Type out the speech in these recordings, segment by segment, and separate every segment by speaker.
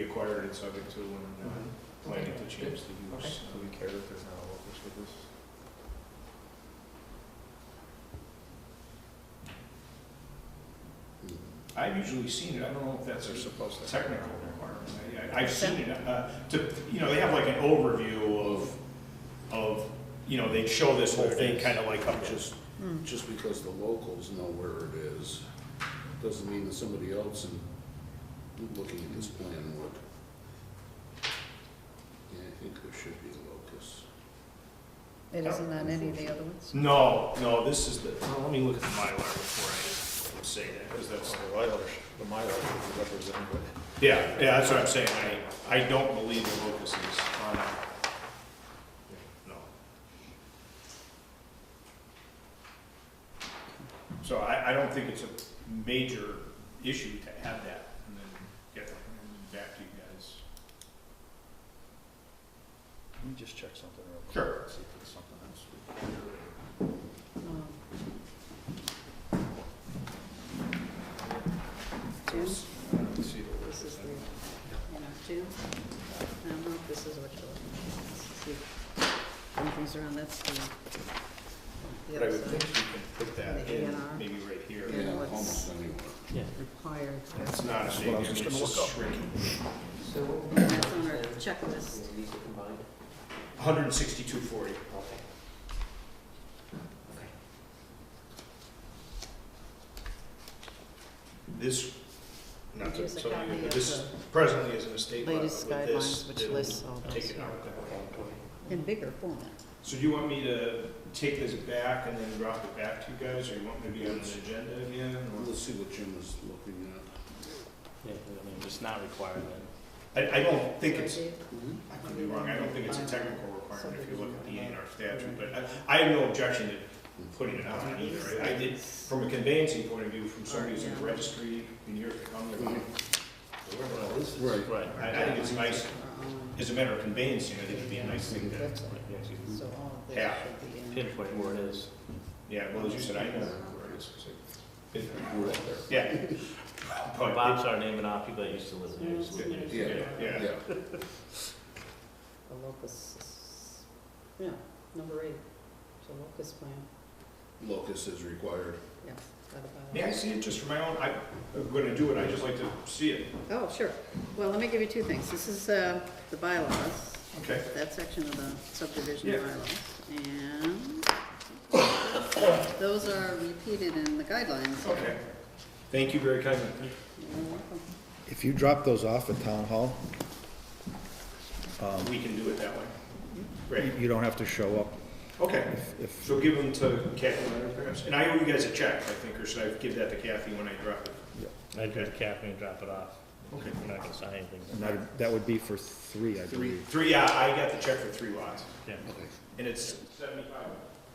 Speaker 1: acquired it subject to and uh, planning to change the
Speaker 2: Mm-hmm. Okay.
Speaker 1: use to the character now of this with this. I've usually seen it, I don't know if that's a supposed technical requirement, I- I, I've seen it, uh, to, you know, they have like an overview of, of, you know, they show this whole thing kind of like up just,
Speaker 3: Just because the locals know where it is, doesn't mean that somebody else in, looking at this plan would. Yeah, I think there should be a locus.
Speaker 4: It isn't on any of the other ones?
Speaker 1: no, no, this is the, well, let me look at the Mylar before I say that, because that's.
Speaker 5: Oh, The Mylar, the Mylar is represented,
Speaker 1: Yeah, yeah, that's what I'm saying, I, I don't believe the locus is on that. No. So I, I don't think it's a major issue to have that, and then get it back to you guys.
Speaker 5: let me just check something real quick.
Speaker 1: Sure.
Speaker 5: See if it's something else.
Speaker 4: Um, Two,
Speaker 5: See the
Speaker 4: this is
Speaker 5: locus.
Speaker 4: the, you know, two. No, no, this is what you're looking at. And these are on, that's the, the
Speaker 1: But I
Speaker 4: other
Speaker 1: would think
Speaker 4: side,
Speaker 1: you can put that
Speaker 4: The A
Speaker 1: in,
Speaker 4: and R.
Speaker 1: maybe right here.
Speaker 4: Yeah. what's-
Speaker 3: Almost anywhere.
Speaker 4: required.
Speaker 1: It's not a big, I mean, it's just shrinking.
Speaker 2: So what would be
Speaker 4: And that's on our
Speaker 2: the-
Speaker 4: checklist.
Speaker 2: These are combined?
Speaker 1: Hundred and sixty-two forty.
Speaker 2: Okay. Okay.
Speaker 1: This, not to
Speaker 4: Here's a
Speaker 1: tell
Speaker 4: copy
Speaker 1: you,
Speaker 4: of
Speaker 1: but this
Speaker 4: the
Speaker 1: presently is an estate lot, but
Speaker 4: latest
Speaker 1: with this,
Speaker 4: guidelines, which
Speaker 1: they'll
Speaker 4: lists all
Speaker 1: take
Speaker 4: those.
Speaker 1: it out that way.
Speaker 4: In bigger format.
Speaker 1: So do you want me to take this back and then drop it back to you guys, or you want me to be on an agenda again? or-
Speaker 3: Let's see what Jim is looking at.
Speaker 6: Yeah, I mean, it's not required then.
Speaker 1: I, I don't think it's, uh,
Speaker 4: Dave?
Speaker 1: I could be wrong, I don't think it's a technical requirement if you look at the A and R statute, but I, I have no objection to putting it on either. I I did, from a conveyancing point of view, from somebody who's in the registry in years to come, they're like,
Speaker 5: So we're gonna lose this.
Speaker 3: Right.
Speaker 6: Right.
Speaker 1: I, I think it's nice,
Speaker 4: Are on,
Speaker 1: as a matter of conveyancing, I think it'd be a nice thing to,
Speaker 4: That's right. So all of this
Speaker 1: Yeah.
Speaker 4: should be in.
Speaker 6: Pinpoint where it is.
Speaker 1: yeah, well, as you said, I know where it is, 'cause I've been there.
Speaker 3: We're out there.
Speaker 1: Yeah. But it-
Speaker 6: Oh, Bob's our name and off people that used to live there. used to live there.
Speaker 1: Yeah, yeah.
Speaker 3: Yeah,
Speaker 4: The locus, is- yeah, number eight, so locus plan,
Speaker 3: locus is required.
Speaker 4: yeah. that about-
Speaker 1: May I see it just for my own, I- I'm gonna do it, I just like to see it.
Speaker 4: Oh, sure. Well, let me give you two things. This is uh, the bylaws,
Speaker 1: Okay.
Speaker 4: that section of the subdivision
Speaker 1: Yeah.
Speaker 4: bylaws. And those are repeated in the guidelines.
Speaker 1: Okay. Thank you very kindly.
Speaker 4: You're welcome.
Speaker 7: If you drop those off at town hall,
Speaker 1: We can do it that way.
Speaker 7: you
Speaker 1: Great,
Speaker 7: you don't have to show up
Speaker 1: okay.
Speaker 7: if, if,
Speaker 1: So give them to Kathy Leonard perhaps, and I owe you guys a check, I think, or should I give that to Kathy when I drop it?
Speaker 6: I'd go to Catherine and drop it off.
Speaker 1: Okay.
Speaker 6: We're not gonna sign anything.
Speaker 7: and that, that would be for three, I
Speaker 1: Three,
Speaker 7: believe.
Speaker 1: three, yeah, I got the check for three lots,
Speaker 6: Yeah.
Speaker 3: Okay.
Speaker 1: and it's seventy-five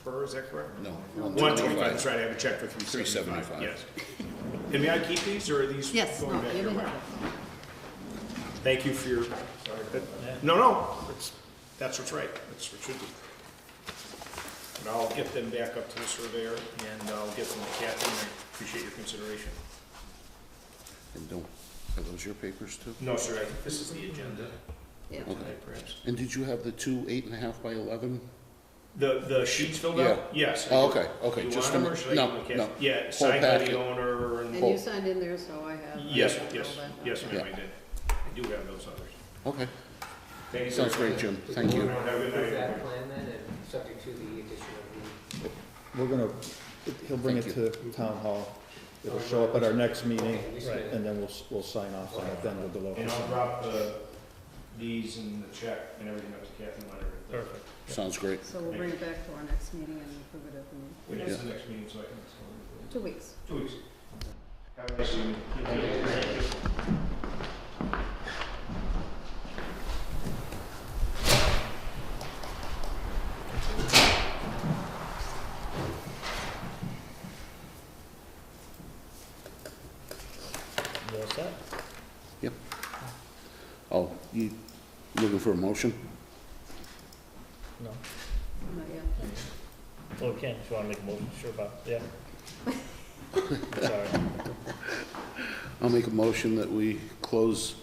Speaker 1: per, is that correct?
Speaker 3: No.
Speaker 1: One twenty-five, that's right, I have a check for three seventy-five,
Speaker 3: 375.
Speaker 1: yes. And may I keep these, or are these
Speaker 4: Yes, no,
Speaker 1: going back
Speaker 4: you
Speaker 1: your
Speaker 4: may
Speaker 1: way?
Speaker 4: have it.
Speaker 1: Thank you for your, no, no, it's- that's what's right, that's what should be. And I'll get them back up to the surveyor, and I'll get them to Kathy, and I appreciate your consideration.
Speaker 3: And don't, are those your papers too?
Speaker 1: No, sir, I think this is the agenda
Speaker 4: Yeah.
Speaker 3: Okay.
Speaker 1: tonight, perhaps.
Speaker 3: And did you have the two eight and a half by eleven?
Speaker 1: The, the sheets filled out? Yes. I
Speaker 3: Oh,
Speaker 1: do.
Speaker 3: okay, okay,
Speaker 1: You want
Speaker 3: just a
Speaker 1: them, or
Speaker 3: minute.
Speaker 1: should I
Speaker 3: No,
Speaker 1: give them to
Speaker 3: no.
Speaker 1: Kathy? Yeah,
Speaker 3: Whole
Speaker 1: signed by the
Speaker 3: packet.
Speaker 1: owner, and,
Speaker 4: And you
Speaker 3: Oh.
Speaker 4: signed in there, so I have.
Speaker 1: yes,
Speaker 4: I have
Speaker 1: yes,
Speaker 4: all that.
Speaker 1: yes, ma'am,
Speaker 3: Yeah.
Speaker 1: I did. I do have those others.
Speaker 3: Okay,
Speaker 1: Thank you. sir.
Speaker 3: sounds great, Jim, thank you.
Speaker 1: Have a good
Speaker 2: Approve
Speaker 1: night.
Speaker 2: that plan then, and subject to the addition of the
Speaker 7: We're gonna, he'll bring it
Speaker 3: Thank
Speaker 7: to town hall. It'll show up at our next meeting,
Speaker 2: Okay, we see it.
Speaker 7: and then we'll, s- we'll sign off on it then with the
Speaker 1: And
Speaker 7: locus.
Speaker 1: I'll drop the, these and the check and everything up to Kathy Leonard.
Speaker 6: Perfect.
Speaker 3: Sounds great.
Speaker 4: So we'll bring it back to our next meeting and approve it at the,
Speaker 1: When is the next meeting, so I can, so-
Speaker 4: two weeks.
Speaker 1: two weeks. Have a nice evening.
Speaker 6: You all set?
Speaker 3: Oh, you looking for a motion?
Speaker 6: No.
Speaker 4: Not yet.
Speaker 6: Well, we can, if you wanna make a motion, sure, Bob, yeah. Sorry.
Speaker 3: I'll make a motion that we close